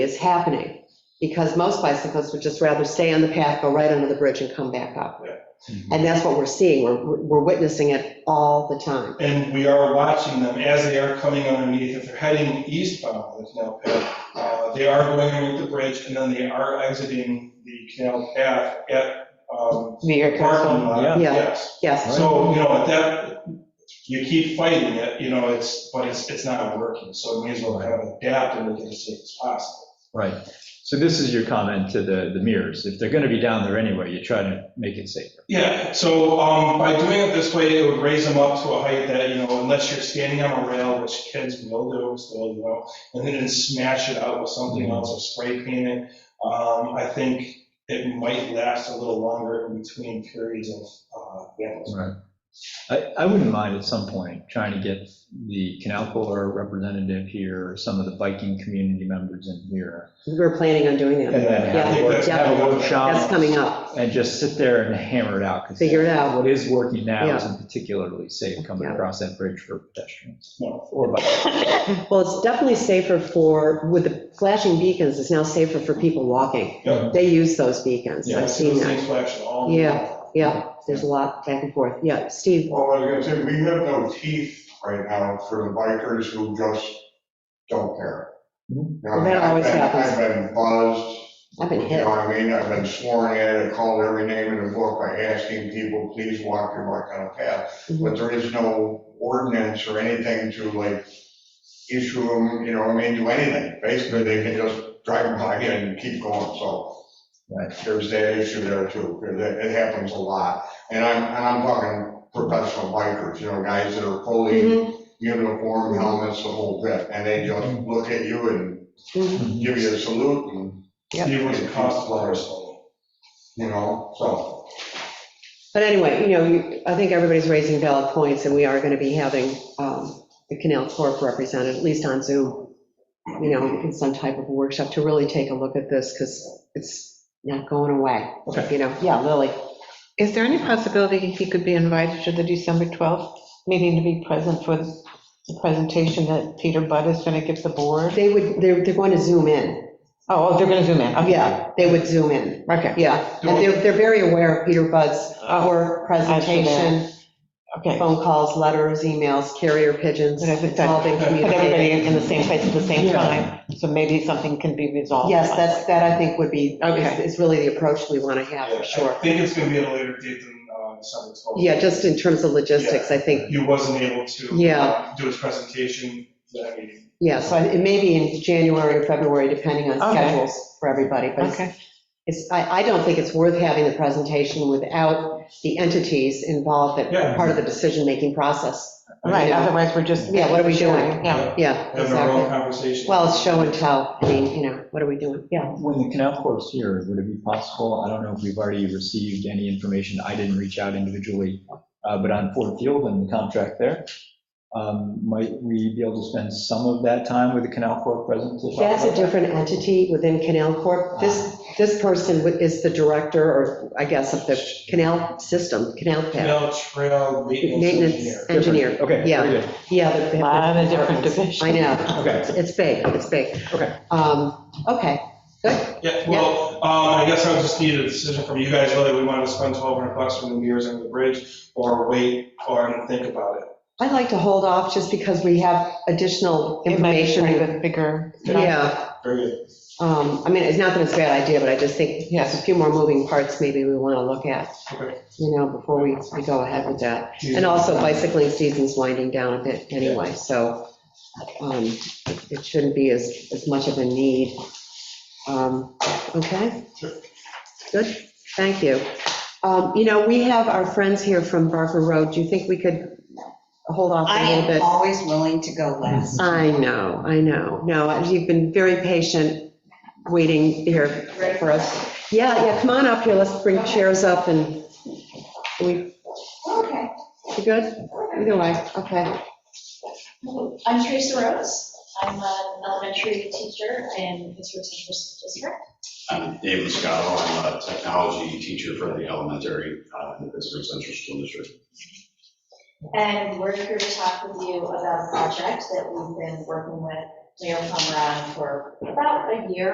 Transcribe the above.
is happening, because most bicyclists would just rather stay on the path, go right under the bridge and come back up. Mm-hmm. And that's what we're seeing, we're, we're witnessing it all the time. And we are watching them as they are coming underneath, if they're heading eastbound, the canal path, uh, they are going underneath the bridge, and then they are exiting the canal path at um, New York parking Council, lot, Yeah. yes. yes, So, you know, that, you keep fighting it, you know, it's, but it's, it's not working, so we may as well have adapt and make it as safe as possible. Right. So this is your comment to the, the mirrors. If they're going to be down there anyway, you try to make it safer. Yeah, so um, by doing it this way, it would raise them up to a height that, you know, unless you're standing on a rail, which kids will do still, you know, and then smash it out with something else or spray paint it, um, I think it might last a little longer in between periods of, uh, vandalism. Right. I, I wouldn't mind at some point trying to get the Canal Corps representative here, or some of the biking community members in here. we're planning on doing And that, then have a Yeah. work- have a that's workshop coming up, and just sit there and hammer it out. 'cause figure it out. What is working now isn't particularly safe coming Yeah. across that bridge for pedestrians No. or bikes. Well, it's definitely safer for, with the flashing beacons, it's now safer for people walking. Yeah, They use those beacons, yeah, I've so seen those that. things flash at all. Yeah. Yeah, there's a lot back and forth, yeah, Steve, Well, I was gonna say, we have no teeth right now for the bikers who just don't care. Mhm. You know, Well, that always I've been- happens. I've been buzzed, I've been you hit. know what I mean? I've been sworn at, I called every name in the book by asking people, please walk your bike on a path. Mhm. But there is no ordinance or anything to like issue them, you know, what I mean, do anything. Basically, they can just drive by and keep going, so. Right. There's that issue there too, 'cause it it happens a lot. And I'm, and I'm talking professional bikers, you know, guys that are fully Mhm, uniform, helmets, the whole bit. And they just look at you and mhm. Mm-hmm. give you a salute and, Yeah. It was a cost of so. you know, so. But anyway, you know, you- I think everybody's raising valid points, and we are going to be having um, the Canal Corp represented, at least on Zoom, you know, in some type of workshop to really take a look at this, because it's not going away. Okay. You know, yeah, Lily. Is there any possibility he could be invited to the December 12th meeting to be present for the presentation that Peter Budd is going to give the board? They would, they're, they're going to zoom in. Oh, oh, they're going to zoom in, okay. Yeah, they would zoom in. Okay, Yeah. And they're, they're very aware of Peter Budd's Oh, our presentation, okay. Put phone calls, letters, emails, carrier pigeons, Okay, good. it's all been communicated. everybody in in the same place at the same Yeah. time, so maybe something can be resolved. Yes, that's, that I think would be, is Oh, Okay. is really the approach we want to have, Yeah, for I sure. think it's gonna be at a later date than uh, December 12th. Yeah, just in terms of logistics, I think, He wasn't able to. Yeah. uh, Do his presentation for that meeting. yeah, so I- it may be in January or February, depending on Okay. schedules for everybody, but it's- Okay, it's, I, I don't think it's worth having the presentation without the entities involved that Yeah. are part of the decision-making process. right, otherwise we're just. Yeah, what are we doing? Yeah, Yeah, Having our own exactly. conversation. Well, it's show and tell, I mean, you know, what are we doing? Yeah. When the canal corps is here, would it be possible, I don't know if we've already received any information, I didn't reach out individually, uh, but on Ford Field and the contract there, um, might we be able to spend some of that time with the canal corps present? to talk That's a about that? different entity within Canal Corp. This, this person is the director, or I guess, of the canal system, canal path, Canal Trail Maintenance maintenance Engineer. engineer. Okay, Yeah. very good, Yeah. they have Lot of different departments. divisions. I know, okay. It's- it's big, it's big. Okay. Um, okay, good, Yeah, well, um, I guess I would just need a decision from you guys, whether we want to spend 1,200 bucks for the mirrors on the bridge, or wait, or think about it. I'd like to hold off just because we have additional it might be kind of information. a bigger. Yeah, Very good. um, I mean, it's not that it's a bad idea, but I just think there's a Yes. few more moving parts maybe we want to look at, Okay. you know, before we, we go ahead with that. And also bicycling season's winding down a bit anyway, so um, it shouldn't be as, as much of a need. Um, Okay? Sure. Good, thank you. Um, You know, we have our friends here from Barker Road, do you think we could hold off a I little am bit? always willing to go last. I know, I know, no, you've been very patient waiting here for us. Yeah, yeah, come on up here, let's bring chairs up and, we, Okay, you good? Either way, okay. I'm Teresa Rose. I'm an elementary teacher in Pittsburgh Central School District. I'm Dave Muscato, Um, I'm a technology teacher for the elementary uh, in the Pittsburgh Central School District. And we're here to talk with you about a project that we've been working with Mayor Plummer on for about a year.